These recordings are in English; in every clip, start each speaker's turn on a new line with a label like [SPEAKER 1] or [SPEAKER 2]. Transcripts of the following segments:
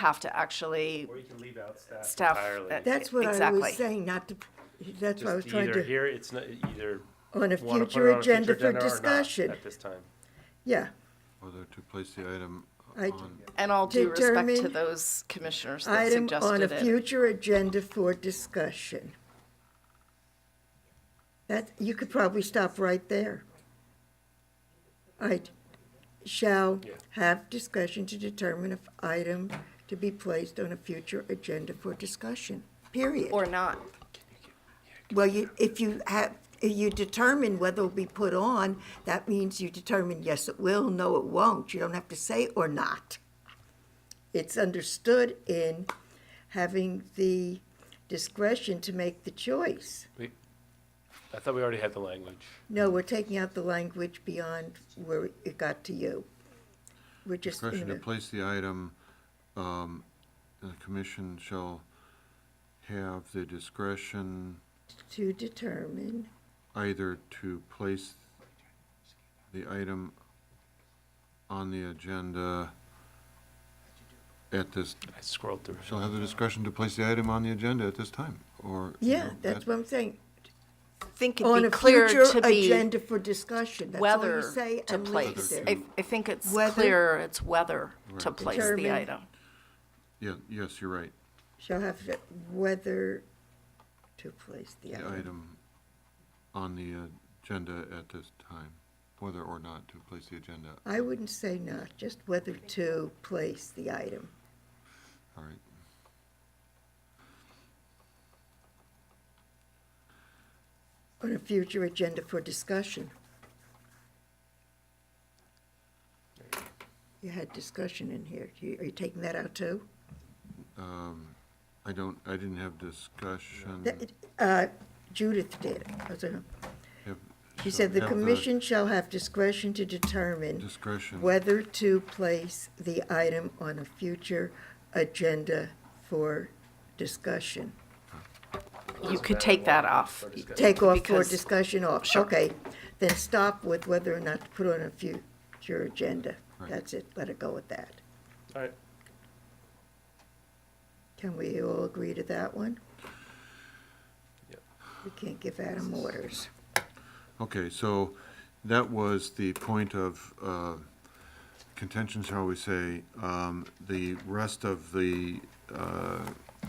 [SPEAKER 1] have to actually
[SPEAKER 2] Or you can leave out staff.
[SPEAKER 1] staff.
[SPEAKER 2] entirely.
[SPEAKER 1] uh,
[SPEAKER 3] That's what I
[SPEAKER 1] exactly.
[SPEAKER 3] was saying, not to, that's what I was
[SPEAKER 2] Just
[SPEAKER 3] trying
[SPEAKER 2] either
[SPEAKER 3] to,
[SPEAKER 2] here, it's not, either.
[SPEAKER 3] on
[SPEAKER 2] wanna
[SPEAKER 3] a
[SPEAKER 2] put
[SPEAKER 3] future
[SPEAKER 2] it on a
[SPEAKER 3] agenda
[SPEAKER 2] future
[SPEAKER 3] for
[SPEAKER 2] agenda or not
[SPEAKER 3] discussion.
[SPEAKER 2] At this time.
[SPEAKER 3] Yeah,
[SPEAKER 4] Whether to place the item
[SPEAKER 3] I-
[SPEAKER 4] on,
[SPEAKER 1] And all due respect to
[SPEAKER 3] Determine
[SPEAKER 1] those commissioners that
[SPEAKER 3] item on a
[SPEAKER 1] suggested it.
[SPEAKER 3] future agenda for discussion. That, you could probably stop right there. I shall
[SPEAKER 2] Yeah.
[SPEAKER 3] have discussion to determine if item to be placed on a future agenda for discussion, period.
[SPEAKER 1] Or not.
[SPEAKER 3] Well, you, if you have, if you determine whether it'll be put on, that means you determine, yes, it will, no, it won't. You don't have to say or not. It's understood in having the discretion to make the choice.
[SPEAKER 2] I thought we already had the language.
[SPEAKER 3] No, we're taking out the language beyond where it got to you. We're just,
[SPEAKER 4] discretion to
[SPEAKER 3] in
[SPEAKER 4] place the item, um, the commission shall have the discretion
[SPEAKER 3] a- to determine,
[SPEAKER 4] either to place the item on the agenda at this,
[SPEAKER 2] I scrolled through.
[SPEAKER 4] shall have the discretion to place the item on the agenda at this time, or. you
[SPEAKER 3] yeah,
[SPEAKER 4] know,
[SPEAKER 3] that's
[SPEAKER 4] that-
[SPEAKER 3] what I'm saying.
[SPEAKER 1] I think it'd
[SPEAKER 3] On
[SPEAKER 1] be
[SPEAKER 3] a
[SPEAKER 1] clear
[SPEAKER 3] future
[SPEAKER 1] to be
[SPEAKER 3] agenda for discussion, that's all
[SPEAKER 1] whether
[SPEAKER 3] you say
[SPEAKER 1] to
[SPEAKER 3] and leave it
[SPEAKER 1] place.
[SPEAKER 3] there.
[SPEAKER 1] I, I think it's
[SPEAKER 3] Whether-
[SPEAKER 1] clear it's whether to
[SPEAKER 4] Right.
[SPEAKER 1] place the
[SPEAKER 3] Determine.
[SPEAKER 1] item.
[SPEAKER 4] Yeah, yes, you're right,
[SPEAKER 3] shall have to- whether to place the
[SPEAKER 4] the
[SPEAKER 3] item.
[SPEAKER 4] item on the agenda at this time, whether or not to place the agenda,
[SPEAKER 3] I wouldn't say not, just whether to place the item.
[SPEAKER 4] all right.
[SPEAKER 3] On a future agenda for discussion. You had discussion in here. You- Are you taking that out too?
[SPEAKER 4] Um, I don't, I didn't have discussion.
[SPEAKER 3] That- uh, Judith did. I was gonna-
[SPEAKER 4] Have-
[SPEAKER 3] She
[SPEAKER 4] shall
[SPEAKER 3] said the
[SPEAKER 4] have
[SPEAKER 3] commission shall have discretion to determine
[SPEAKER 4] Discretion.
[SPEAKER 3] whether to place the item on a future agenda for discussion.
[SPEAKER 1] You could take that off.
[SPEAKER 3] Take off for
[SPEAKER 1] Because-
[SPEAKER 3] discussion off, okay. Then stop with whether or not to put on a future agenda.
[SPEAKER 4] Right.
[SPEAKER 3] That's it, let it go with that.
[SPEAKER 2] All right.
[SPEAKER 3] Can we all agree to that one?
[SPEAKER 2] Yep.
[SPEAKER 3] We can't give Adam orders.
[SPEAKER 4] Okay, so that was the point of uh, contention, shall we say. Um, The rest of the uh,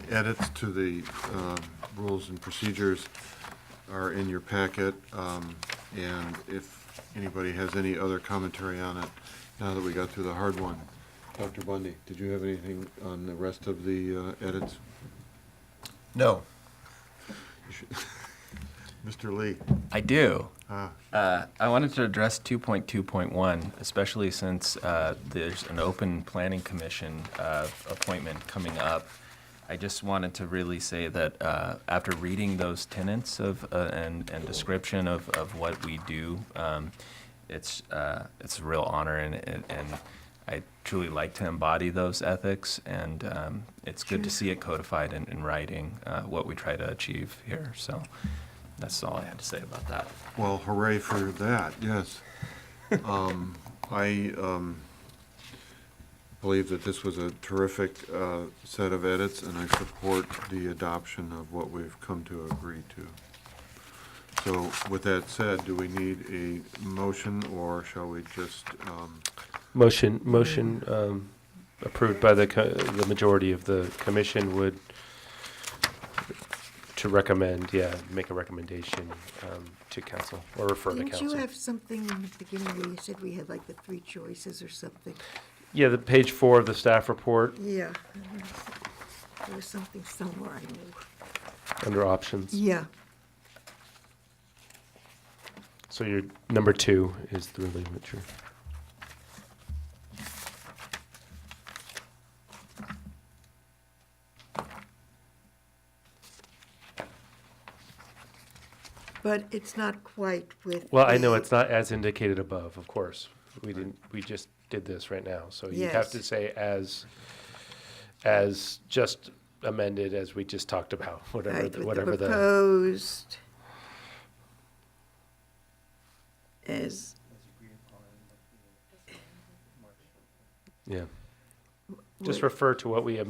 [SPEAKER 4] edits to the um, rules and procedures are in your packet. Um, And if anybody has any other commentary on it, now that we got through the hard one. Dr. Bundy, did you have anything on the rest of the uh, edits?
[SPEAKER 5] No.
[SPEAKER 4] Mr. Lee?
[SPEAKER 5] I do.
[SPEAKER 4] Ah.
[SPEAKER 5] Uh, I wanted to address 2.2.1, especially since uh, there's an open planning commission uh, appointment coming up. I just wanted to really say that uh, after reading those tenets of uh, and, and description of, of what we do, um, it's uh, it's a real honor and, and and I truly like to embody those ethics and um, it's good to see it codified in, in writing uh, what we try to achieve here. So that's all I had to say about that.
[SPEAKER 4] Well, hooray for that, yes. Um, I um, believe that this was a terrific uh, set of edits, and I support the adoption of what we've come to agree to. So with that said, do we need a motion, or shall we just, um,
[SPEAKER 2] Motion, motion um, approved by the, co- the majority of the commission would, to recommend, yeah, make a recommendation um, to council or refer to
[SPEAKER 3] Didn't you
[SPEAKER 2] council.
[SPEAKER 3] have something in the beginning where you said we had like the three choices or something?
[SPEAKER 2] Yeah, the page four of the staff report
[SPEAKER 3] Yeah. There was something somewhere I knew.
[SPEAKER 2] under options.
[SPEAKER 3] Yeah,
[SPEAKER 2] So your number two is the relinquisher.
[SPEAKER 3] but it's not quite with.
[SPEAKER 2] Well, I know
[SPEAKER 3] the-
[SPEAKER 2] it's not as indicated above, of course. We didn't, we just did this right now, so you'd have to
[SPEAKER 3] Yes.
[SPEAKER 2] say as, as just amended as we just talked about, whatever,
[SPEAKER 3] Right,
[SPEAKER 2] the-
[SPEAKER 3] with
[SPEAKER 2] whatever the.
[SPEAKER 3] Proposed. As,
[SPEAKER 2] Yeah, Just refer to what we amended